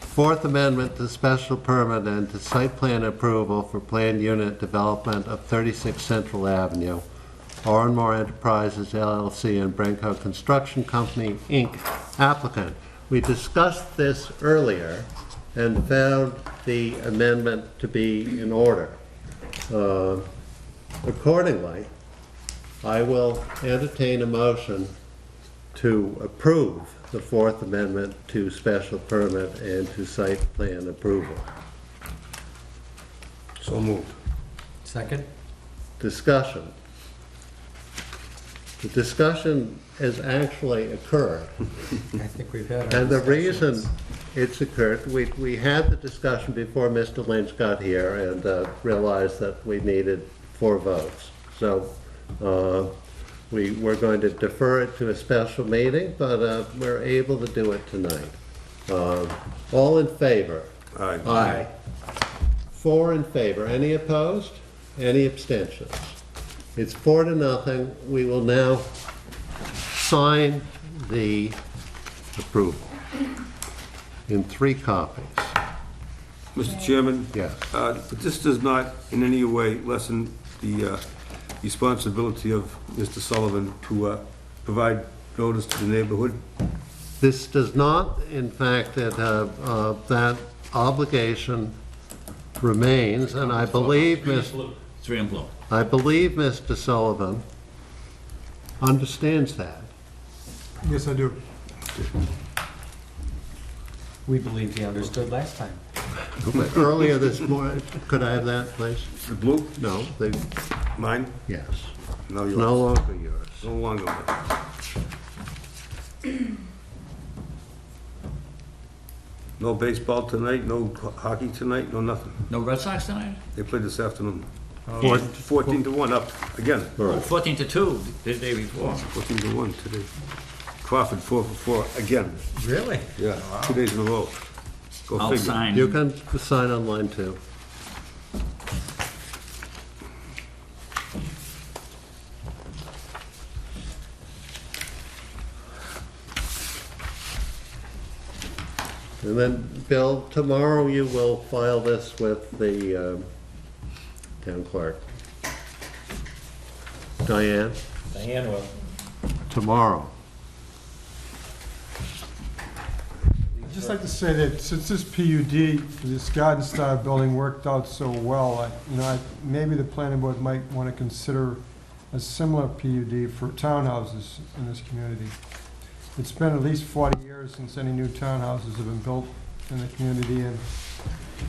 Fourth Amendment to special permit and to site plan approval for planned unit development of 36 Central Avenue. Oranmore Enterprises LLC and Branco Construction Company, Inc. applicant. We discussed this earlier and found the amendment to be in order. Uh, Accordingly, I will entertain a motion to approve the Fourth Amendment to special permit and to site plan approval. So moved. Second? Discussion. The discussion has actually occurred, I think we've had our and the discussion. reason it's occurred, we, we had the discussion before Mr. Lynch got here and uh, realized that we needed four votes. So, uh, we were going to defer it to a special meeting, but uh, we're able to do it tonight. Uh, All in favor? Aye. Aye. Four in favor. Any opposed? Any abstentions? It's four to nothing. We will now sign the approval in three copies. Mr. Chairman? Yes. uh, This does not in any way lessen the uh, responsibility of Mr. Sullivan to uh, provide notice to the neighborhood. This does not, in fact, that, uh, uh, that obligation remains, and I believe, Ms. Three and blue. I believe Mr. Sullivan understands that. Yes, I do. We believed he understood last time. Earlier this morning, could I have that, please? The blue, No, they, mine, yes. no No yours. longer yours. No longer mine. No baseball tonight, no ho- hockey tonight, no nothing. No Red Sox tonight? They played this afternoon. Four- 14 to 1 up, again. Right. Fourteen to two, the day before. 14 to 1 today. Crawford 4 for 4, again. Really? Yeah, two days in a row. Go I'll figure. sign. You can sign online too. And then, Bill, tomorrow you will file this with the um, town clerk. Diane? Diane will. Tomorrow. I'd just like to say that since this PUD, this garden style building worked out so well, I- you know, I- maybe the planning board might want to consider a similar PUD for townhouses in this community. It's been at least 40 years since any new townhouses have been built in the community, and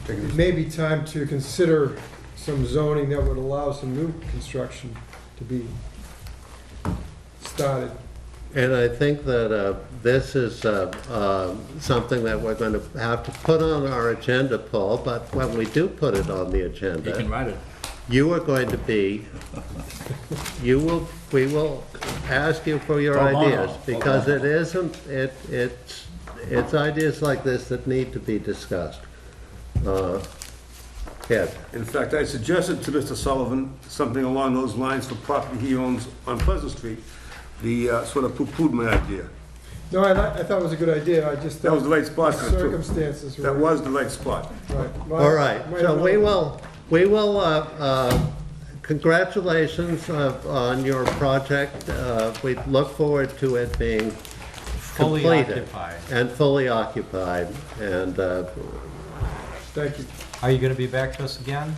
it may be time to consider some zoning that would allow some new construction to be started. And I think that uh, this is uh, um, something that we're going to have to put on our agenda, Paul, but when we do put it on the You can agenda, write it. you are going to be, you will, we will ask you for your Tomorrow. ideas, because it isn't, it, it's, it's ideas like this that need to be discussed. Uh, Ed, In fact, I suggested to Mr. Sullivan something along those lines for property he owns on Pleasant Street. The, uh, sort of poo-pooed my idea. No, I li- I thought it was a good idea, I just. That was the right spot for it, too. Circumstances were. That was the right spot. Right. Well, all right, might so have we known. will, we will, uh, uh, congratulations uh, on your project. Uh, We look forward to it being Fully completed. occupied. And fully occupied, and uh, Thank you. Are you gonna be back to us again?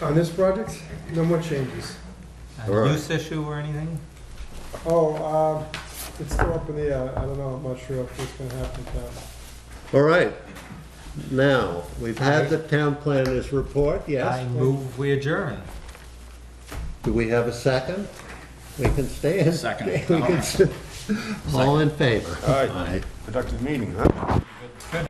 On this project, no more changes. A Right. use issue or anything? Oh, um, it's still up in the air, I don't know, I'm not sure if it's gonna happen, but all right. Now, we've had the town planner's report, I yes? move we adjourn. Do we have a second? We can stay in. Second. Oh. We can s- All in favor? Aye. Productive meeting, huh? Good.